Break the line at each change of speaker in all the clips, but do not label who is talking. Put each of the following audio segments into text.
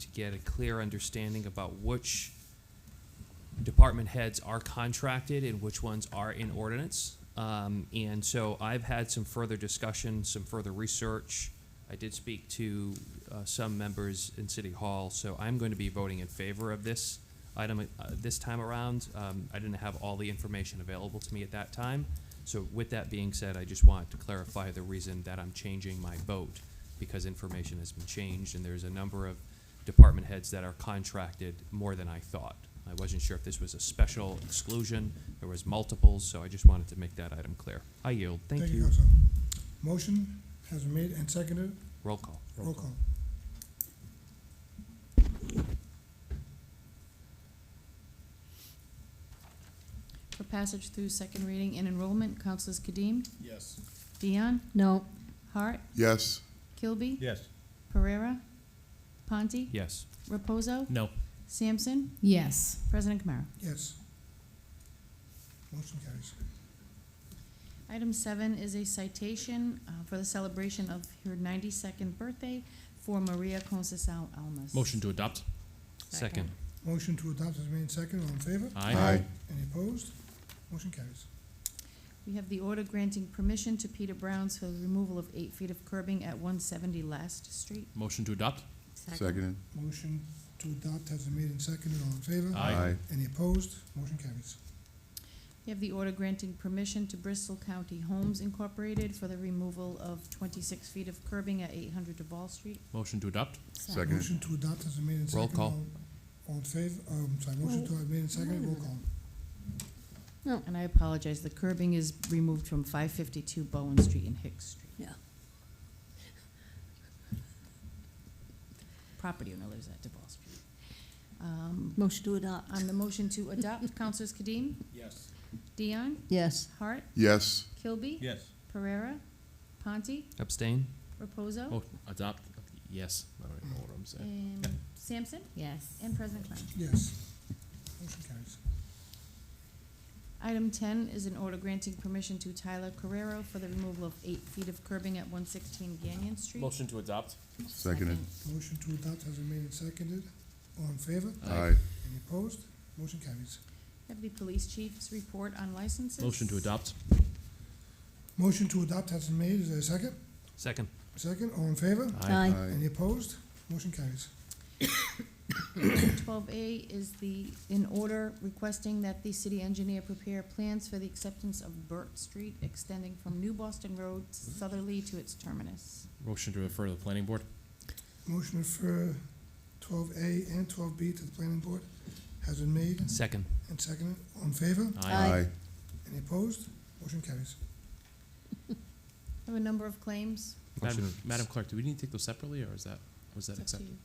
to get a clear understanding about which department heads are contracted and which ones are in ordinance. Um, and so I've had some further discussion, some further research. I did speak to uh, some members in City Hall, so I'm going to be voting in favor of this item uh, this time around. Um, I didn't have all the information available to me at that time. So with that being said, I just want to clarify the reason that I'm changing my vote because information has been changed and there's a number of department heads that are contracted more than I thought. I wasn't sure if this was a special exclusion, there was multiples, so I just wanted to make that item clear. I yield, thank you.
Council. Motion has been made and seconded.
Roll call.
Roll call.
For passage through second reading and enrollment, Councilors Kadim,
Yes.
Dion,
No.
Hart,
Yes,
Kilby,
Yes.
Pereira, Ponti,
Yes,
Reposo,
No.
Sampson,
Yes.
President Kamara.
Yes. Motion carries.
Item seven is a citation uh, for the celebration of her ninety-second birthday for Maria Concesal Almas.
Motion to adopt?
second.
Motion to adopt has been made and seconded. All in favor?
aye,
Any opposed? Motion carries.
We have the order granting permission to Peter Brown's for the removal of eight feet of curbing at one seventy Last Street.
Motion to adopt?
seconded,
Motion to adopt has been made and seconded. All in favor?
Aye.
aye,
Any opposed? Motion carries.
We have the order granting permission to Bristol County Homes Incorporated for the removal of twenty-six feet of curbing at eight hundred DeVal Street.
Motion to adopt?
seconded,
Motion to adopt has been made and
Roll
seconded.
call.
All- All in favor? Um, sorry, motion to have made and seconded. Roll call.
And I apologize, the curbing is removed from five fifty-two Bowen Street and Hicks Street.
Yeah.
Property owner lives at DeVal Street. Um,
Motion to adopt.
On the motion to adopt, Councilors Kadim,
Yes.
Dion,
Yes.
Hart,
yes,
Kilby,
Yes.
Pereira, Ponti,
Abstain?
Reposo,
Oh, adopt, yes. I don't even know what I'm saying.
and Sampson,
Yes.
and President Klein.
Yes. Motion carries.
Item ten is an order granting permission to Tyler Carrero for the removal of eight feet of curbing at one sixteen Gannon Street.
Motion to adopt?
seconded,
Motion to adopt has been made and seconded. All in favor?
aye,
Any opposed? Motion carries.
Deputy Police Chief's report on licenses.
Motion to adopt?
Motion to adopt has been made. Is there a second?
Second.
Second, all in favor?
Aye.
Any opposed? Motion carries.
Twelve A is the, an order requesting that the city engineer prepare plans for the acceptance of Burt Street extending from New Boston Road southerly to its terminus.
Motion to refer to the planning board?
Motion to refer twelve A and twelve B to the planning board has been made
Second.
and seconded. All in favor?
Aye.
aye,
Any opposed? Motion carries.
I have a number of claims.
Madam,
Motion-
Madam Clerk, do we need to take those separately, or is that, was that
It's up to
accepted?
you.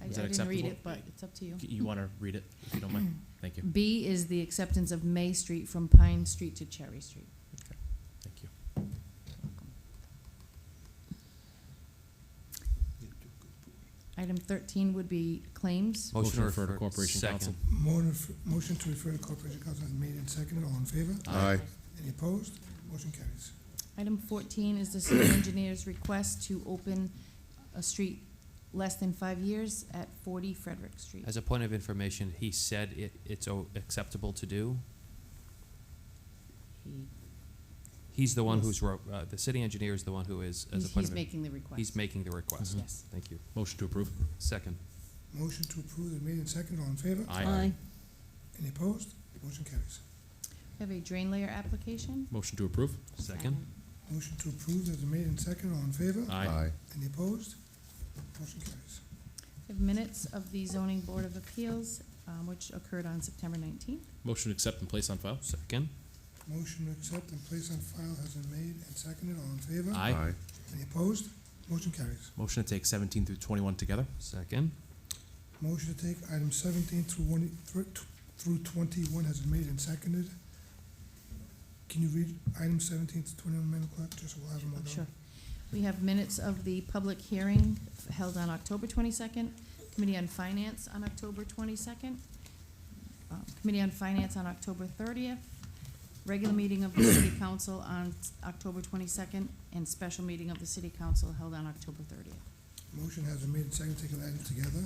I
Is that
I didn't read
acceptable?
it, but it's up to you.
You wanna read it, if you don't mind? Thank you,
B is the acceptance of May Street from Pine Street to Cherry Street.
thank you.
Item thirteen would be claims.
Motion to refer to Corporation Council.
Motion to- Motion to refer to corporation council has been made and seconded. All in favor?
aye,
Any opposed? Motion carries.
Item fourteen is the city engineer's request to open a street less than five years at forty Frederick Street.
As a point of information, he said it, it's o- acceptable to do.
He-
He's the one
Yes.
who's, wrote- uh, the city engineer is the one who is, as a point
He's he's Mm-hmm.
of, in-
making the request.
he's Mm-hmm. making the request.
Yes.
Thank you.
Motion to approve?
Second.
Motion to approve is made and seconded. All in favor? Any opposed? Motion carries.
We have a drain layer application.
Motion to approve?
Second.
Motion to approve is made and seconded. All in favor?
aye,
Any opposed? Motion carries.
We have minutes of the zoning board of appeals, um, which occurred on September nineteenth.
Motion to accept and place on file?
Second.
Motion to accept and place on file has been made and seconded. All in favor?
aye,
Any opposed? Motion carries.
Motion to take seventeen through twenty-one together?
Second.
Motion to take item seventeen through one, through- through twenty-one has been made and seconded. Can you read item seventeen to twenty-one, Madam Clerk, just so we'll have them all
Oh,
down?
Sure. We have minutes of the public hearing held on October twenty-second, Committee on Finance on October twenty-second, um, Committee on Finance on October thirtieth, regular meeting of the City Council on October twenty-second, and special meeting of the City Council held on October thirtieth.
Motion has been made and seconded, taking items together.